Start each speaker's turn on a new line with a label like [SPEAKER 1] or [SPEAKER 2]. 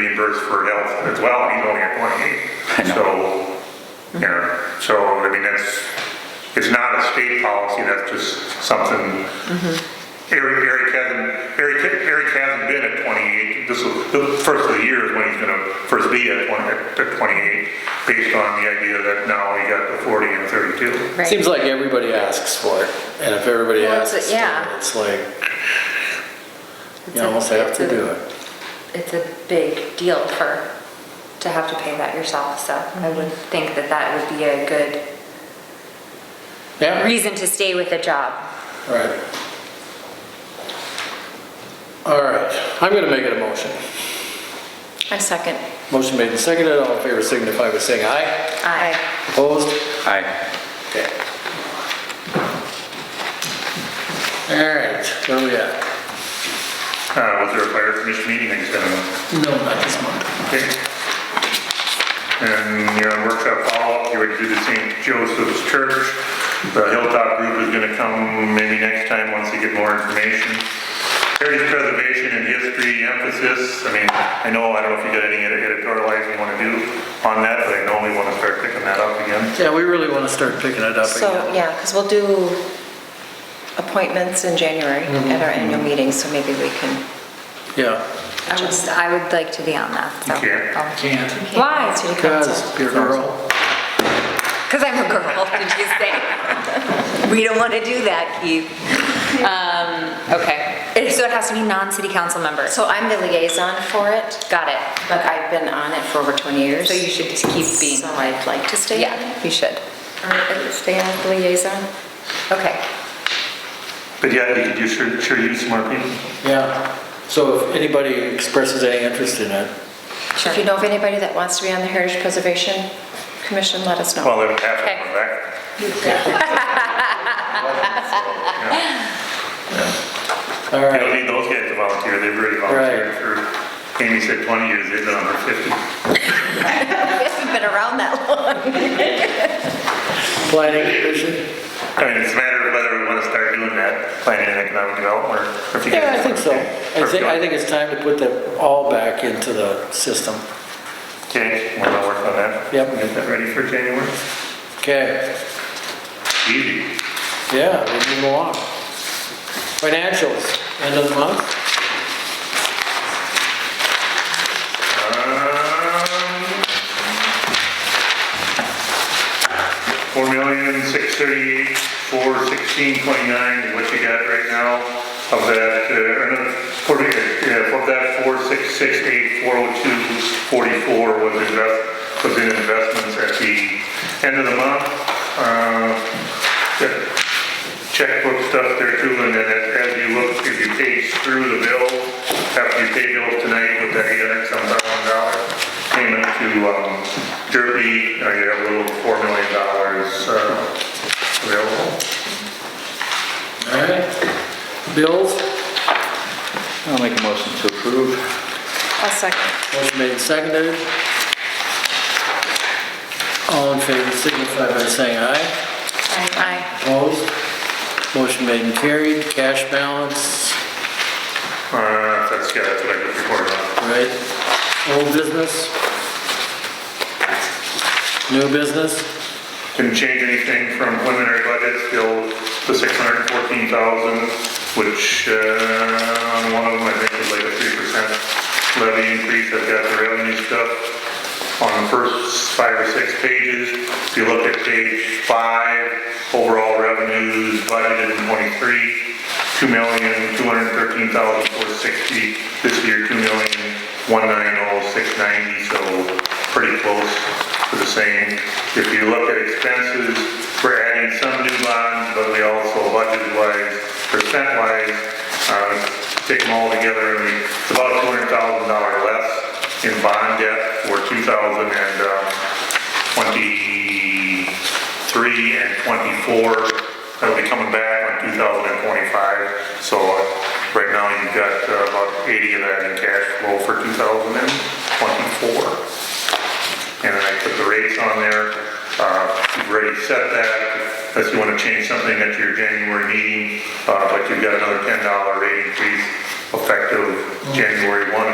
[SPEAKER 1] reimbursed for health as well, and he's only at
[SPEAKER 2] I
[SPEAKER 1] twenty-eight.
[SPEAKER 2] know.
[SPEAKER 1] So, you know, so, I mean, that's, it's not a state policy, that's just something. Eric, Eric hasn't, Eric, Eric hasn't been at twenty-eight, this will, the first of the year is when he's gonna first be at twenty, at twenty-eight, based on the idea that now he got the forty and thirty-two.
[SPEAKER 3] Right.
[SPEAKER 4] Seems like everybody asks for it, and if everybody
[SPEAKER 3] Well, it's-
[SPEAKER 4] asks, for
[SPEAKER 3] yeah.
[SPEAKER 4] it, it's like,
[SPEAKER 3] It's
[SPEAKER 4] you
[SPEAKER 3] a-
[SPEAKER 4] almost have
[SPEAKER 3] it's
[SPEAKER 4] to
[SPEAKER 3] a-
[SPEAKER 4] do it.
[SPEAKER 3] It's a big deal for, to have to pay that yourself, so I would
[SPEAKER 5] Mm-hmm.
[SPEAKER 3] think that that would be a good
[SPEAKER 4] Yeah,
[SPEAKER 3] reason to stay with a job.
[SPEAKER 4] right. All right, I'm gonna make it a motion.
[SPEAKER 5] I second.
[SPEAKER 4] Motion made and seconded, all in favor signify by saying aye.
[SPEAKER 3] Aye.
[SPEAKER 4] Opposed?
[SPEAKER 2] Aye.
[SPEAKER 4] Okay. All right, where we at?
[SPEAKER 1] Uh, was there a fire commission meeting next time?
[SPEAKER 4] No, not this month.
[SPEAKER 1] Okay. And your workshop follow-up, you would do the St. Joseph's Church. The Hilltop Group is gonna come maybe next time, once they get more information. Heritage preservation and history emphasis, I mean, I know, I don't know if you got any edit- editorializing you wanna do on that, but I know we wanna start picking that up again.
[SPEAKER 4] Yeah, we really wanna start picking it up
[SPEAKER 5] So,
[SPEAKER 4] again.
[SPEAKER 5] yeah, because we'll do appointments in January at our annual meeting, so maybe we can.
[SPEAKER 4] Yeah,
[SPEAKER 3] I would, I would like to be on that, so. Oh.
[SPEAKER 1] You can't.
[SPEAKER 4] can't.
[SPEAKER 3] Why?
[SPEAKER 5] City council.
[SPEAKER 4] Cause you're a girl.
[SPEAKER 3] Because I'm a girl, did you say? We don't want to do that, Keith. Um, okay. And So it has to be non-city council members.
[SPEAKER 5] So I'm the liaison for it,
[SPEAKER 3] Got it.
[SPEAKER 5] but I've been on it for over 20 years.
[SPEAKER 3] So you should just keep being.
[SPEAKER 5] So I'd like to stay on
[SPEAKER 3] Yeah,
[SPEAKER 5] it,
[SPEAKER 3] you should.
[SPEAKER 5] or at least stay on the liaison.
[SPEAKER 3] Okay.
[SPEAKER 1] But yeah, you could use- sure, sure use some more people.
[SPEAKER 4] Yeah, so if anybody expresses any interest in it,
[SPEAKER 3] Sure.
[SPEAKER 5] If you know of anybody that wants to be on the Heritage Preservation Commission, let us know.
[SPEAKER 1] Well, they would have to come back.
[SPEAKER 4] all
[SPEAKER 1] You don't
[SPEAKER 4] right,
[SPEAKER 1] need those guys to volunteer, they've already volunteered for, Amy said 20 years, they've done over 50.
[SPEAKER 5] I've been around that long.
[SPEAKER 4] planning commission?
[SPEAKER 1] I mean, it's a matter of whether we want to start doing that, planning and economic development, or if you
[SPEAKER 4] Yeah,
[SPEAKER 1] guys.
[SPEAKER 4] I think so. I
[SPEAKER 1] Or if you
[SPEAKER 4] think, I
[SPEAKER 1] want-
[SPEAKER 4] think it's time to put them all back into the system.
[SPEAKER 1] Okay, we're gonna work on that.
[SPEAKER 4] Yep.
[SPEAKER 1] Get that ready for January.
[SPEAKER 4] Okay,
[SPEAKER 1] Easy.
[SPEAKER 4] yeah, we move along. Financials, end of the month?
[SPEAKER 1] Um, Four million, six thirty-eight, four sixteen, twenty-nine is what you got right now. Of that, uh, or no, four, yeah, of that four six six eight, four oh two, forty-four was invest, was in investments at the end of the month. Uh, yeah, checkbook stuff there too, and then as as you look, if you page through the bill, after you pay bills tonight with that eight hundred some thousand dollar payment to, um, Derby, uh, you have a little four million dollars, uh, available.
[SPEAKER 4] All right. Bills,
[SPEAKER 2] I'll make a motion to approve.
[SPEAKER 5] I'll second.
[SPEAKER 4] motion made and seconded. All in favor signify by saying aye.
[SPEAKER 5] Aye.
[SPEAKER 4] Opposed? Motion made and carried. Cash balance,
[SPEAKER 1] Uh, that's, yeah, that's what I just reported on.
[SPEAKER 4] right? Old business? New business?
[SPEAKER 1] Didn't change anything from preliminary budget, still the six hundred and fourteen thousand, which, uh, on one of them, I think is like a three percent levy increase, I've got the revenue stuff on the first five or six pages. If you look at page five, overall revenues budgeted in twenty-three, two million, two hundred and thirteen thousand, four sixty, this year, two million, one nine oh, six ninety, so pretty close to the same. If you look at expenses, we're adding some new bonds, but we also budget-wise, percent-wise, uh, take them all together, and we- it's about two hundred thousand dollar less in bond debt for two thousand and, um, twenty-three and twenty-four. That'll be coming back on two thousand and twenty-five, so uh, right now you've got uh, about eighty of that in cash flow for two thousand and twenty-four and then I put the rates on there. Uh, You've already set that, unless you want to change something at your January meeting, uh, but you've got another $10 rate increase effective January 1,